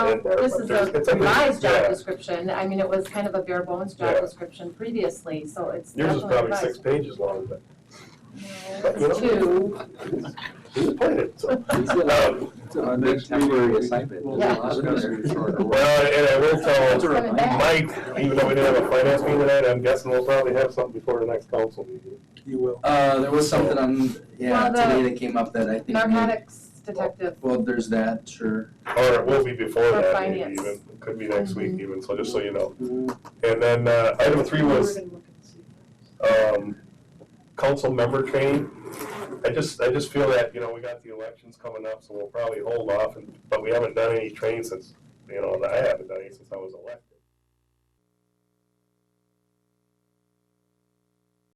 And there- Um, This is there's- a it's a- revised yeah. job description, I mean, it was kind of a bare bones job Yeah. description previously, so it's Yours is definitely probably six revised. pages long, but No, it's You know? Two, he's played it, so. It's a- Um, it's a Our big next meeting, temporary we- assignment. we'll Yeah. discuss your charter. Well, and I will That's a tell coming reminder. back. Mike, even though we didn't have a finance meeting tonight, I'm guessing we'll probably have something before the next council meeting. You will. Uh, there was something on, yeah, Well, the today that came up that I think, may- narcotics detective, well, there's that, sure. Or it will be before For that, maybe finance. Mm-hmm. even, It could be next week even, so just so you know. And then, uh, item three was, um, council member training. I just, I just feel that, you know, we got the elections coming up, so we'll probably hold off, and, but we haven't done any training since, you know, I haven't done any since I was elected.